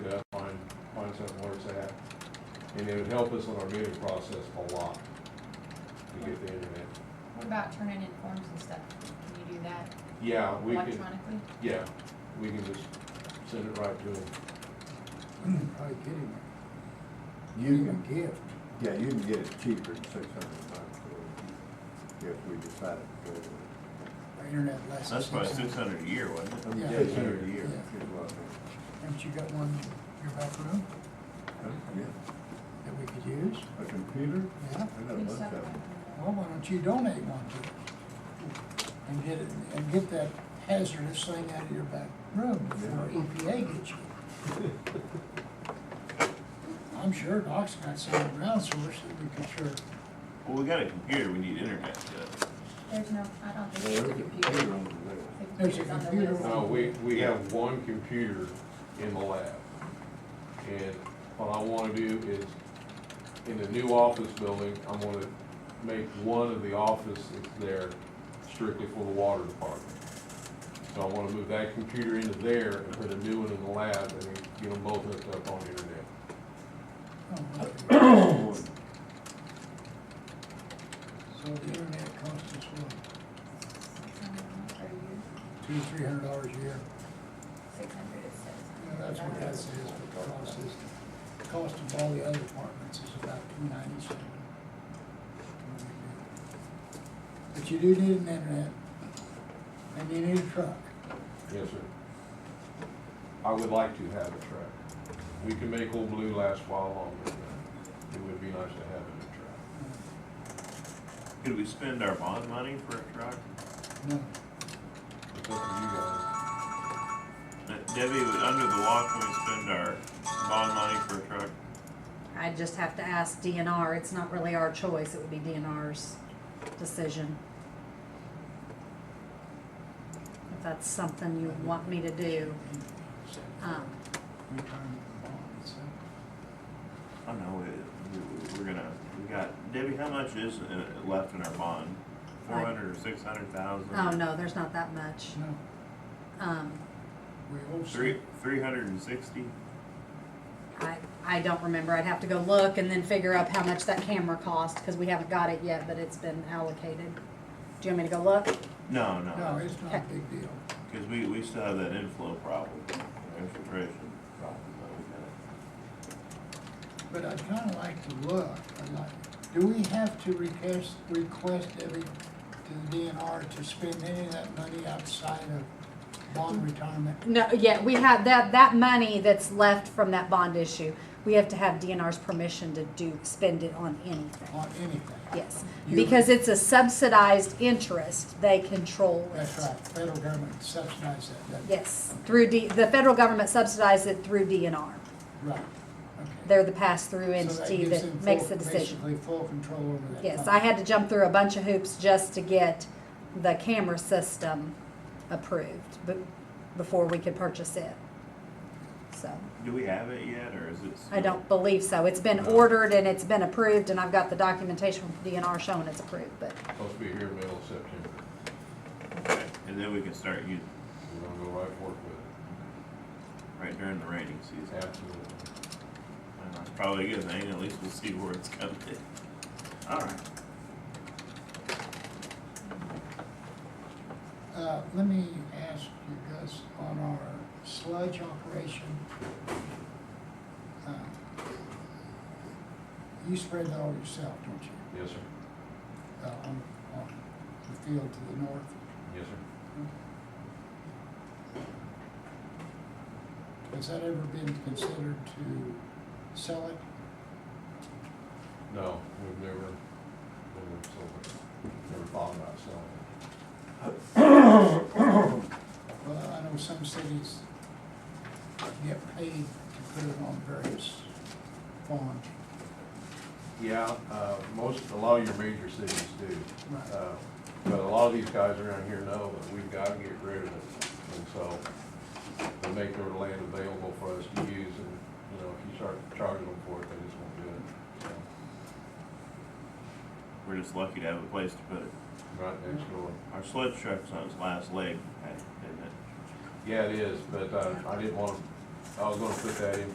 And it would help us on our bidding process a lot to get the internet. What about turning in forms and stuff? Can you do that Yeah, we can, electronically? yeah, we can just send it right to them. Are you kidding me? You Even can, a gift. yeah, you can get it cheaper than six hundred bucks or if we decided to go with it. Our internet lasts. That's probably six hundred a year, wasn't it? Yeah. Six hundred a year, Yeah. good luck. Haven't you got one in your back room Yeah, that we could use? a computer, Yeah. I got a bunch of them. Well, why don't you donate one to us? And get it, and get that hazardous thing out of your back room before EPA gets you. I'm sure Doc's got some ground source that we could sure, Well, we got a computer, we need internet, yeah. There's no, I don't think There's there's a a computer computer. on the list. The There's a computer's on the computer list. on- No, we, we have one computer in the lab. And what I wanna do is, in the new office building, I'm gonna make one of the offices there strictly for the water department. So I wanna move that computer into there and put a new one in the lab and then get them both hooked up on the internet. oh, so the internet costs us what, Are you two, three hundred dollars a year? six hundred, it says? Yeah, That's what that says, but the cost is, the cost of all the other apartments is about two ninety-seven. But you do need an internet, and you need a truck. Yes, sir. I would like to have a track. We can make Old Blue last while longer, but it would be nice to have a track. Could we spend our bond money for a truck? No, It's up to you guys. Uh, Debbie, under the law, can we spend our bond money for a truck? I just have to ask DNR, it's not really our choice, it would be DNR's decision. If that's something you want me to do, um, retirement bond, so, I know, it- we- we're gonna, we got, Debbie, how much is uh, left in our bond? Four hundred or six hundred thousand? oh no, there's not that much. no, Um, we also. Three, three hundred and sixty? I, I don't remember, I'd have to go look and then figure up how much that camera cost, cause we haven't got it yet, but it's been allocated. Do you want me to go look? No, no. No, it's not a big deal. Because we, we still have that inflow problem, or infiltration problem. that we got. But I'd kinda like to look, I'd like, do we have to request, request every, to the DNR to spend any of that money outside of bond retirement? No, yeah, we have that, that money that's left from that bond issue, we have to have DNR's permission to do, spend it on anything. on anything. Yes, You- because it's a subsidized interest, they control it. That's right, federal government subsidizes that, that, Yes, through D, the federal government subsidized it through DNR. right, okay. They're the pass-through So entity gives them that makes full- the decision. Basically, full control over that. Yes, fund. I had to jump through a bunch of hoops just to get the camera system approved, but, before we could purchase it. So, Do we have it yet, or is it? I still- don't believe so. It's been ordered and it's been approved, and I've got the documentation from DNR showing it's approved, but Supposed to be here middle of September. Okay, And then we can start using, We're gonna go right forward with right during the rainy it, season. absolutely. And That's probably a good thing, at least we'll see where it's coming. All right, Uh, let me ask you guys, on our sludge operation, uh, you spread that all yourself, don't you? Yes, sir. Uh, on, on the field to the north, Yes, sir. has that ever been considered to sell it? No, we've never, never sold it. Never thought about selling it. Well, I know some cities get paid to put it on various farms. Yeah, uh, most, a lot of your major cities do. Right. Uh, But a lot of these guys around here know that we've gotta get rid of it. And so they make their land available for us to use and, you know, if you start charging them for it, they just won't do it. So, we're just lucky to have a place to put it. Right next door. Our sled truck's on its last leg, isn't it? Yeah, it is, but uh, I didn't want, to. I was gonna put that in